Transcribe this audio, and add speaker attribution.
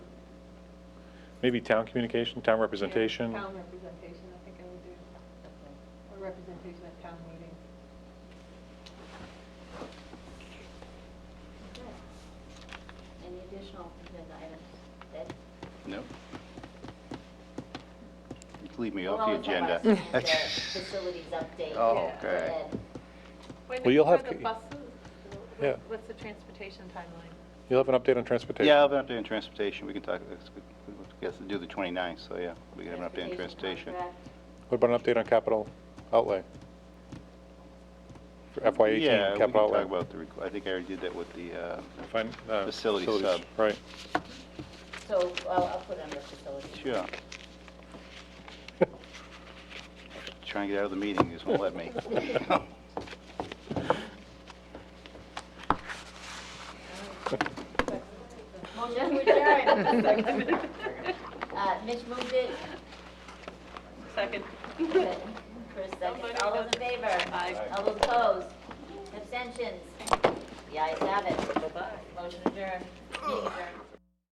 Speaker 1: Maybe town communication, town representation.
Speaker 2: Town representation, I think I would do. Or representation at town meeting.
Speaker 3: Okay. Any additional agenda items? That-
Speaker 4: No. You can leave me
Speaker 3: We'll
Speaker 4: off the
Speaker 3: always have our
Speaker 4: agenda.
Speaker 3: the Facilities update.
Speaker 4: Oh,
Speaker 3: for Ed.
Speaker 4: okay.
Speaker 2: When
Speaker 1: Well, you'll
Speaker 2: for
Speaker 1: have
Speaker 2: the
Speaker 1: to-
Speaker 2: buses,
Speaker 1: Yeah.
Speaker 2: what- what's the transportation timeline?
Speaker 1: You'll have an update on transportation.
Speaker 4: Yeah, I'll have an update on transportation, we can talk, we have to do the 29th, so yeah, we can have an update on transportation.
Speaker 3: contract.
Speaker 1: What about an update on capital outlay? For FY
Speaker 4: Yeah,
Speaker 1: eighteen
Speaker 4: we can
Speaker 1: capital
Speaker 4: talk
Speaker 1: outlay?
Speaker 4: about the, requ- I think I already did that with the, uh,
Speaker 1: Fin- uh,
Speaker 4: Facility sub.
Speaker 1: Right.
Speaker 3: So I'll, I'll put it under facilities.
Speaker 4: sure. Trying to get out of the meeting, just won't let me.
Speaker 3: Motion to adjourn. Uh, Mitch moved it.
Speaker 2: Second.
Speaker 3: Chris, second. All those in favor?
Speaker 2: Aye.
Speaker 3: All those opposed? Abstentions? The ayes have it.
Speaker 2: Bye-bye.
Speaker 3: Motion adjourned. Meeting adjourned.